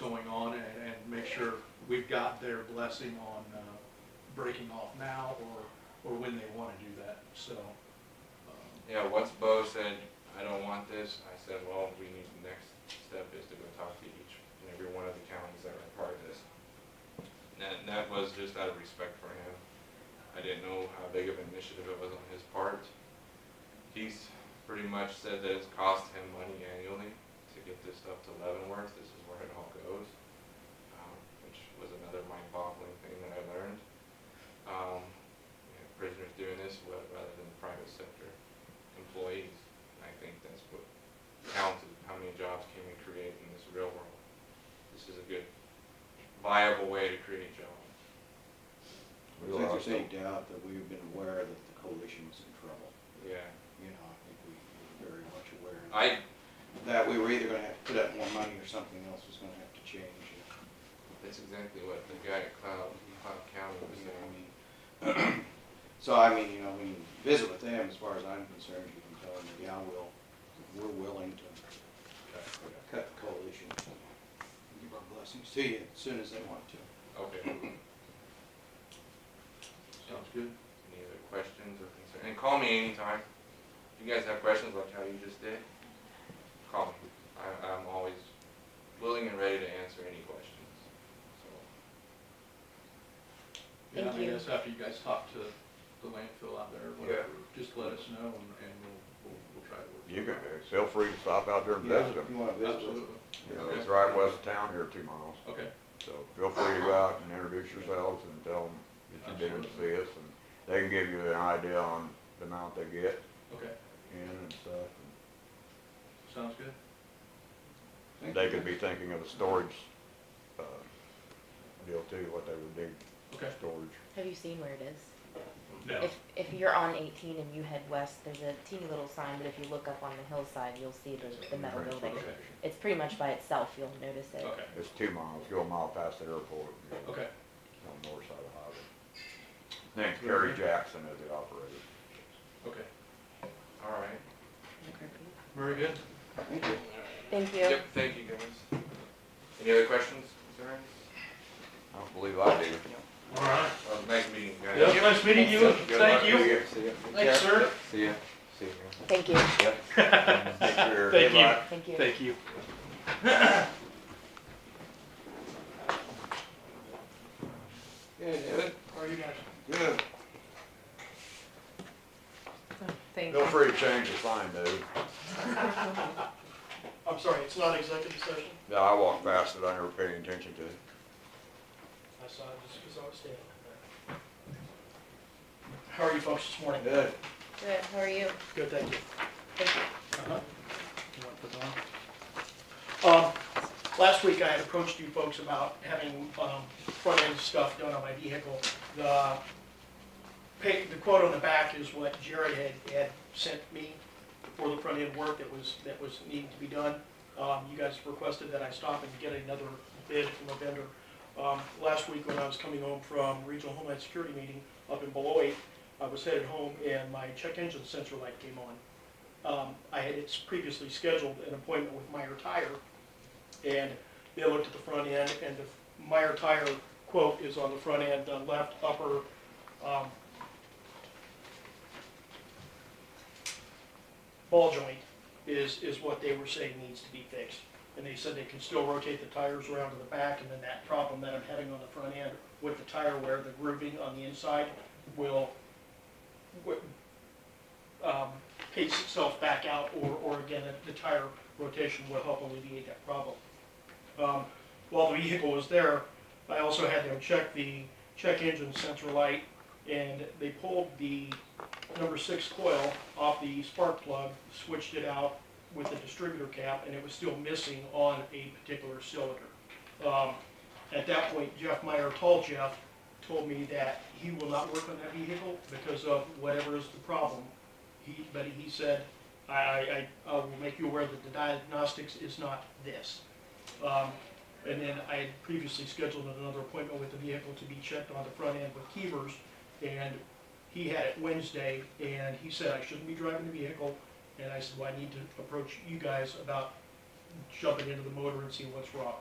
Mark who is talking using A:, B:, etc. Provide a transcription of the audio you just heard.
A: going on and, and make sure we've got their blessing on, uh, breaking off now or, or when they wanna do that, so. um,
B: Yeah, once Bo said, I don't want this, I said, well, we need, the next step is to go talk to each and every one of the counties that are part of this. And that, that was just out of respect for him. I didn't know how big of an initiative it was on his part. He's pretty much said that it's cost him money annually to get this stuff to Leavenworth, this is where it all goes. um, Which was another mind-boggling thing that I learned. Um, you know, Prisoners doing this wa- rather than the private sector employees. And I think that's what counts is how many jobs can we create in this real world. This is a good viable way to create jobs.
C: There's like a big doubt that we've been aware that the coalition was in trouble,
B: Yeah.
C: you know, I think we were very much aware
B: I,
C: that we were either gonna have to put up more money or something else was gonna have to change.
B: that's exactly what the guy at Cloud, Cloud County was
C: you know, I
B: saying.
C: mean, So I mean, you know, when you visit with them, as far as I'm concerned, you can tell them, yeah, we'll, we're willing to cut the coalition. and Give our blessings to you as soon as they want to.
B: Okay,
A: Sounds good.
B: any other questions or concerns? And call me anytime. If you guys have questions like how you just did, call me. I, I'm always willing and ready to answer any questions, so.
A: Yeah,
D: Thank you.
A: I guess after you guys talk to the landfill out there, or whatever, just let us know and, and we'll, we'll, we'll try to work.
E: You can, uh, feel free to stop out there and visit
C: If you
E: them.
C: wanna visit with them.
A: Absolutely,
E: You know, it's right west of town here, two miles.
A: okay,
E: So feel free to go out and introduce yourselves and tell them that you've been to see us. and They can give you an idea on the amount they get
A: okay,
E: in and stuff.
A: sounds good.
C: Thank
E: They
C: you.
E: could be thinking of a storage, uh, deal too, what they would need,
A: Okay.
E: storage.
D: Have you seen where it is?
A: No.
D: If, if you're on eighteen and you head west, there's a teeny little sign, but if you look up on the hillside, you'll see the, the metal
E: Transfer
D: building.
E: station.
D: It's pretty much by itself, you'll notice it.
A: Okay,
E: It's two miles, go a mile past the airport. you know,
A: okay,
E: On the north side of the highway. Name's Kerry Jackson is the operator.
A: okay,
B: All right.
A: very good.
C: Thank you.
D: Thank you.
B: Yep, thank you guys. Any other questions, concerns?
E: I don't believe I do.
A: All right.
B: Well, nice meeting you guys.
A: Yep, nice meeting you,
B: Good luck.
A: thank you.
C: See ya.
A: Thanks, sir.
B: See ya. See ya.
D: Thank you.
E: Take care.
A: Thank you.
E: Goodbye.
D: Thank you.
A: Thank you.
C: Yeah,
B: Good.
A: How are you guys?
C: Good.
D: Thank
E: Feel free to change the sign, dude.
F: I'm sorry, it's not executive session?
E: Yeah, I walked past it, I never paid any attention to it.
F: I saw it just because I was standing there. How are you folks this morning? Good.
D: Good, how are you?
F: Good, thank you. Uh-huh.
D: Thank you.
F: You want to put that on? Um, Last week I had approached you folks about having um, front-end stuff done on my vehicle. The pay, the quote on the back is what Jared had, had sent me for the front-end work that was, that was needing to be done. Um, You guys requested that I stop and get another bid from a vendor. Um, Last week when I was coming home from Regional Homeland Security meeting up in Beloit, I was headed home and my check engine sensor light came on. Um, I had it's previously scheduled an appointment with Meyer Tire, and they looked at the front end, and the Meyer Tire quote is on the front end, the left upper, um, ball joint is, is what they were saying needs to be fixed. And they said they can still rotate the tires around to the back, and then that problem that I'm having on the front end with the tire wear, the grooving on the inside will, wi- um, pace itself back out, or, or again, the the tire rotation will help alleviate that problem. Um, While the vehicle was there, I also had them check the check engine sensor light, and they pulled the number six coil off the spark plug, switched it out with the distributor cap, and it was still missing on a particular cylinder. Um, At that point, Jeff Meyer, Tall Jeff, told me that he will not work on that vehicle because of whatever is the problem. He, but he said, I, I, I I will make you aware that the diagnostics is not this. Um, and then I had previously scheduled another appointment with the vehicle to be checked on the front end with Keevers, and he had it Wednesday, and he said I shouldn't be driving the vehicle, and I said, well, I need to approach you guys about jumping into the motor and see what's wrong.